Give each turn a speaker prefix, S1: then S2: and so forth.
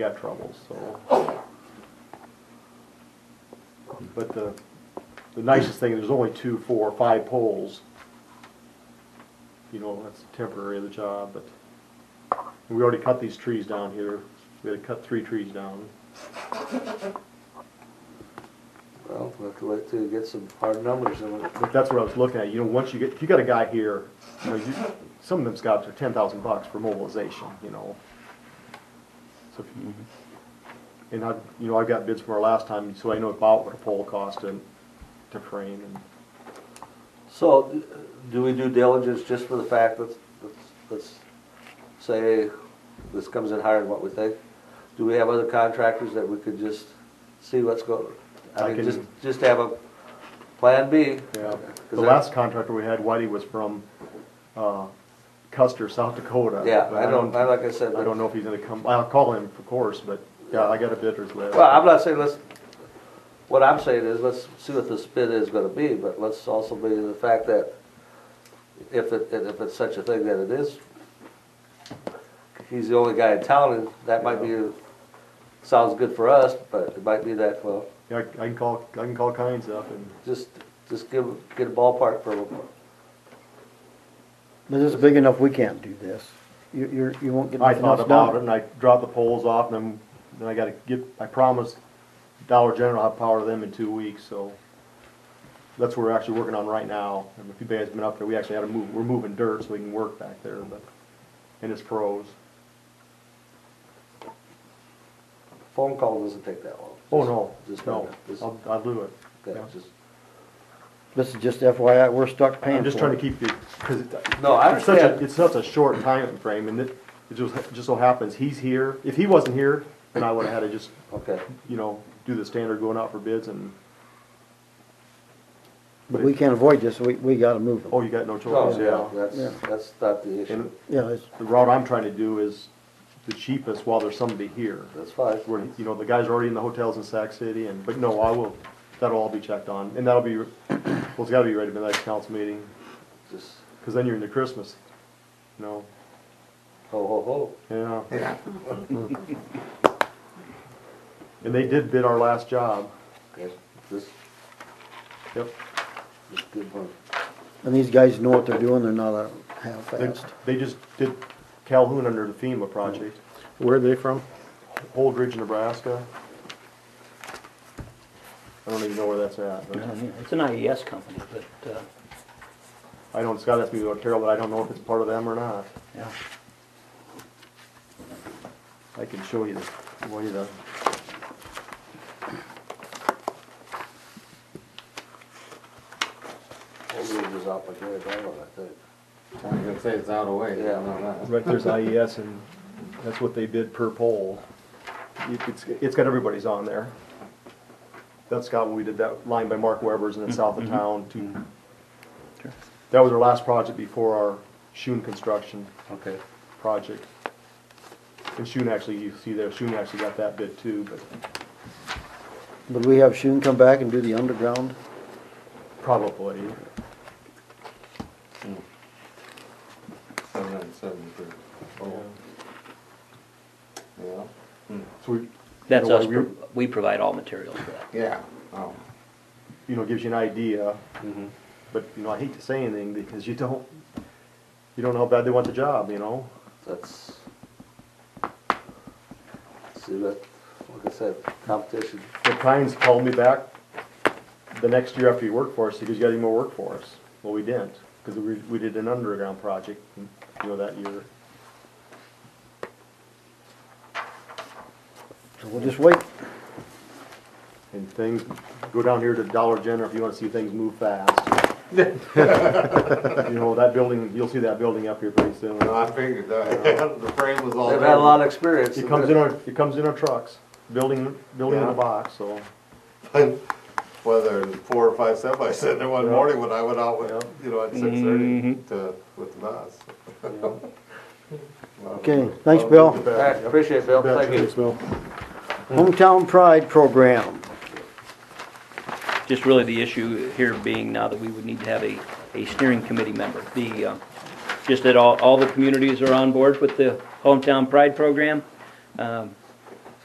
S1: got trouble, so. But the, the nicest thing, there's only two, four, five poles. You know, that's temporary of the job, but we already cut these trees down here. We had to cut three trees down.
S2: Well, we'll have to wait till you get some hard numbers and we'll-
S1: But that's what I was looking at, you know, once you get, if you got a guy here, you know, you, some of them scouts are ten thousand bucks for mobilization, you know. So if you,
S2: Mm-hmm.
S1: and I, you know, I got bids from our last time, so I know about what a pole cost and to frame and,
S2: So, do we do diligence just for the fact that, let's, let's say this comes in higher than what we think? Do we have other contractors that we could just see what's going,
S1: I
S2: I mean,
S1: can-
S2: just, just have a plan B?
S1: yeah.
S2: Is
S1: The
S2: that-
S1: last contractor we had, Whitey, was from, uh, Custer, South Dakota.
S2: Yeah,
S1: but
S2: I don't, I, like I said,
S1: I don't know if he's gonna come, I'll call him, of course, but, yeah, I got a bidder's list.
S2: Well, I'm not saying let's, what I'm saying is, let's see what this bid is gonna be, but let's also be the fact that if it, if it's such a thing that it is, he's the only guy in town, and that might be, sounds good for us, but it might be that, well,
S1: Yeah, I I can call, I can call Kynes up and,
S2: just, just give, get a ballpark for him.
S3: But this is big enough, we can't do this. You, you're, you won't get
S1: I
S3: nothing
S1: thought
S3: else
S1: about it, and
S3: done.
S1: I dropped the poles off, and then, then I gotta get, I promised Dollar General I'll have power to them in two weeks, so. That's what we're actually working on right now, and if you guys have been up there, we actually had to move, we're moving dirt so we can work back there, but, and it's pros.
S2: Phone call doesn't take that long.
S1: Oh, no,
S2: Just-
S1: no,
S2: just-
S1: I'll, I'll do it.
S2: Okay,
S1: yeah.
S2: just-
S3: This is just FYI, we're stuck paying
S1: I'm just trying
S3: for
S1: to keep
S3: it.
S1: the, cause it,
S2: No, I
S1: It's such a,
S2: understand,
S1: it's such a short time frame, and it, it just, just so happens, he's here, if he wasn't here, then I would've had to just,
S2: okay,
S1: you know, do the standard going out for bids and,
S3: But we can't avoid this, we, we gotta move
S1: oh,
S3: them.
S1: you got no
S2: no,
S1: choice,
S2: Oh, yeah,
S1: yeah.
S2: that's, that's not the issue,
S1: And
S3: Yeah, it's,
S1: the route I'm trying to do is the cheapest while there's somebody here.
S2: that's fine.
S1: Where, you know, the guys are already in the hotels in Sac City and, but no, I will, that'll all be checked on, and that'll be, well, it's gotta be ready by the next council meeting,
S2: Just
S1: cause then you're into Christmas, you know,
S2: ho, ho, ho.
S1: yeah. And they did bid our last job.
S2: Okay, this,
S1: Yep.
S2: this is good one.
S3: and these guys know what they're doing, they're not a
S1: They,
S3: half-assed.
S1: they just did Calhoun under the FEMA project,
S4: Where are they from?
S1: Holdridge, Nebraska. I don't even know where that's at, but
S5: It's an IES company, but, uh,
S1: I don't, Scott asked me about Carroll, but I don't know if it's part of them or not.
S5: yeah,
S1: I can show you the, show you the.
S2: Holdridge is out by Gary Barlow, I think.
S6: I was gonna say it's out of way,
S2: Yeah.
S6: yeah, not that.
S1: Right, there's IES and that's what they bid per pole. You- It's, it's got everybody's on there. That's Scott, when we did that line by Mark Weber's and then south
S4: Mm-hmm.
S1: of town to.
S5: Sure.
S1: That was our last project before our Shun construction.
S2: Okay.
S1: project. And Shun actually, you see there, Shun actually got that bid too, but
S3: But we have Shun come back and do the underground,
S1: probably.
S6: Seven and seven three.
S1: So
S6: Yeah.
S1: we,
S5: that's
S1: You know,
S5: us,
S1: we-
S5: pro- we provide all materials for that.
S6: Yeah, oh,
S1: you know, gives you an idea.
S2: Mm-hmm.
S1: But, you know, I hate to say anything because you don't, you don't know how bad they want the job, you know?
S2: That's. See, that, like I said, competition,
S1: But Kynes called me back the next year after he worked for us, he goes, you got any more work for us? Well, we didn't, because we, we did an underground project, you know, that year.
S3: so we'll just wait.
S1: And things, go down here to Dollar General if you wanna see things move fast. You know, that building, you'll see that building up here pretty soon.
S6: no, I figured that, the frame was all there.
S2: they've had a lot of experience.
S1: It comes in our, it comes in our trucks, building, building in a box, so,
S6: Whether it was four or five semis sitting there one
S1: Yeah.
S6: morning when I went out, with,
S1: Yeah.
S6: you know, at six thirty
S2: Mm-hmm.
S6: to, with the bus.
S3: Okay, thanks, Bill.
S2: All right, appreciate it, Bill, thank you.
S3: Hometown Pride Program.
S5: Just really the issue here being now that we would need to have a, a steering committee member. The, uh, just that all, all the communities are on board with the Hometown Pride program. Um,